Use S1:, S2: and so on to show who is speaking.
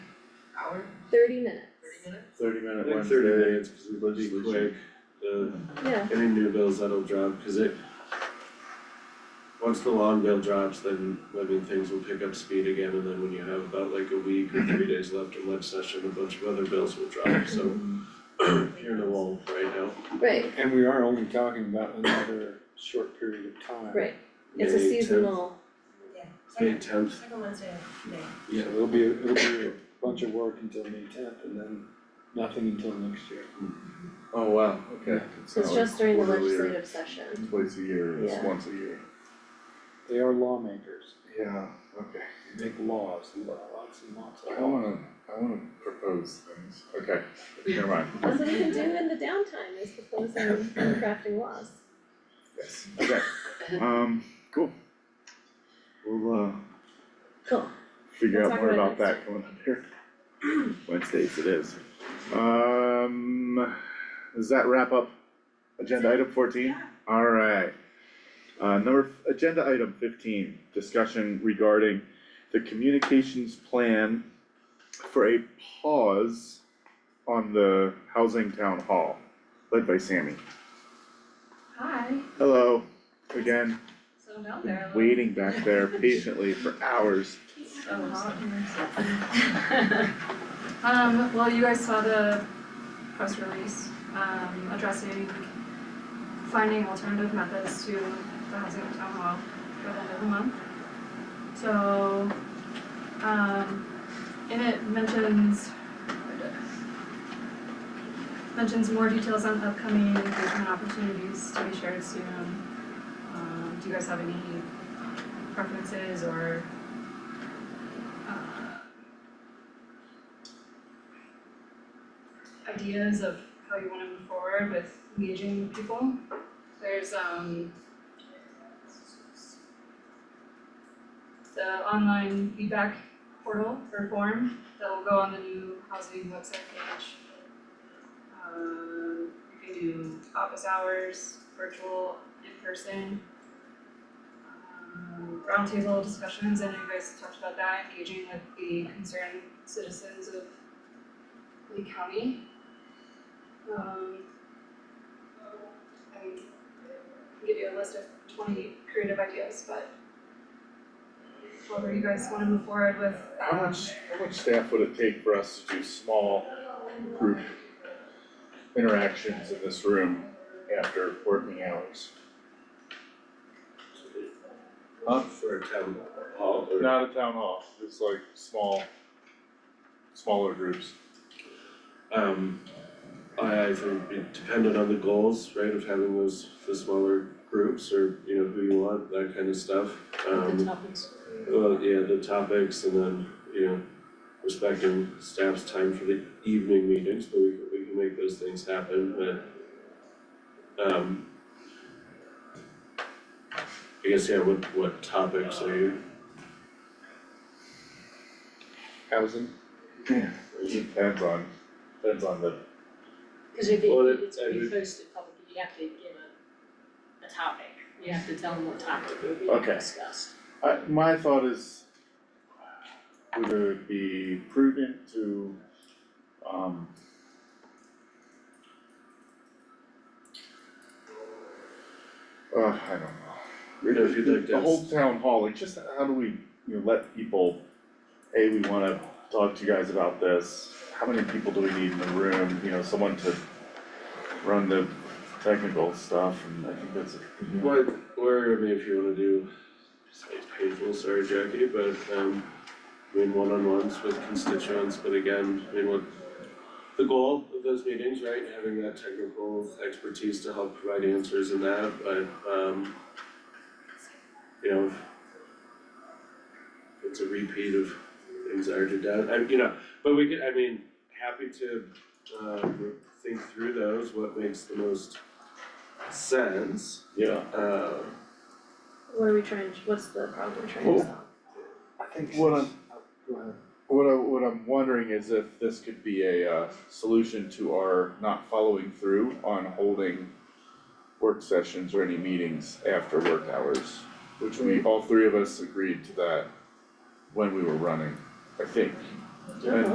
S1: hour,
S2: thirty minutes.
S1: thirty minutes?
S3: Thirty minute
S4: Like
S3: Wednesday,
S4: 30
S3: it's legit.
S4: Be quick, the,
S2: Yeah,
S4: any new bills that'll drop, cause it. Once the long bill drops, then living things will pick up speed again, and then when you have about like a week or three days left in legislature, session, a bunch of other bills will drop, so. You're in a lull right now.
S2: right,
S3: And we are only talking about another short period of time.
S2: right, it's a
S4: May 10th.
S2: seasonal,
S1: Yeah,
S4: May
S1: second,
S4: tenth,
S1: second Wednesday of May.
S4: yeah,
S3: So it'll be, it'll be a bunch of work until May tenth and then nothing until next year.
S4: oh wow,
S5: Okay, so
S2: it's
S5: it's
S2: just during the
S4: Quarterly or-
S2: legislative session,
S5: Oh, twice a year, it's
S2: Yeah.
S5: once a year.
S3: They are lawmakers,
S5: Yeah, okay.
S3: they make laws, lots and lots of
S5: I
S3: laws.
S5: wanna, I wanna propose things, okay, never mind,
S2: that's what we can do in the downtime, is proposing and crafting laws.
S5: yes, okay, um, cool. We'll, uh,
S2: Cool,
S5: figure
S2: We'll
S5: out
S2: talk
S5: more
S2: about
S5: about
S2: it
S5: that coming up here. Wednesdays it is. Um, does that wrap up agenda item fourteen? Alright. Uh, number, f- agenda item fifteen, discussion regarding the communications plan for a pause on the housing town hall, led by Sammy.
S1: Hi,
S5: Hello, again,
S1: so down there. a little-
S5: waiting back there patiently for hours.
S1: So hot. Um, well, you guys saw the press release, um, addressing finding alternative methods to the housing at town hall by the end of the month. So, um, and it mentions mentions more details on upcoming engagement opportunities to be shared soon. Um, do you guys have any preferences or uh, ideas of how you wanna move forward with engaging people. There's um the online feedback portal or form that will go on the new housing website page. Um you can do office hours, virtual, in person. Um, roundtable discussions, I know you guys talked about that, engaging with the concerned citizens of Lee County. Um. I can give you a list of twenty creative ideas, but whatever you guys wanna move forward with,
S5: How
S1: um,
S5: much, how much staff would it take for us to do small group interactions in this room after working hours?
S4: up for a town hall or?
S5: Not a town hall, just like small, smaller groups.
S4: Um, I I think it depended on the goals, right, of having those, the smaller groups or, you know, who you want, that kind of stuff.
S6: the
S4: Um,
S6: topics.
S4: well, yeah, the topics and then, you know, respecting staff's time for the evening meetings, but we can, we can make those things happen, but um I guess, yeah, what what topics are you,
S3: Housing,
S5: It depends on, depends on the,
S6: Cause if it,
S4: Well,
S6: if
S4: it-
S6: it's to
S4: I
S6: be
S4: would-
S6: posted publicly, you have to give a, a topic, you have to tell them what topic will be
S5: Okay.
S6: discussed.
S5: I, my thought is would it be prudent to, um, uh, I don't know.
S4: you know, if you'd like to
S5: The
S4: have
S5: whole town hall, like just how do we, you know, let people, hey, we wanna talk to you guys about this. How many people do we need in the room, you know, someone to run the technical stuff and I think that's.
S4: What, or I mean, if you wanna do, it's painful, sorry Jackie, but um, I mean, one-on-ones with constituents, but again, I mean, what the goal of those meetings, right, having that technical expertise to help provide answers in that, but um you know, it's a repeat of things I already done, I, you know, but we could, I mean, happy to uh think through those, what makes the most sense,
S5: Yeah.
S4: uh
S2: what are we trying, what's the problem we're trying to solve?
S3: I think.
S5: What I'm-
S3: since- oh, Go ahead.
S5: What I, what I'm wondering is if this could be a, uh, solution to our not following through on holding work sessions or any meetings after work hours, which we, all three of us agreed to that when we were running, I think. And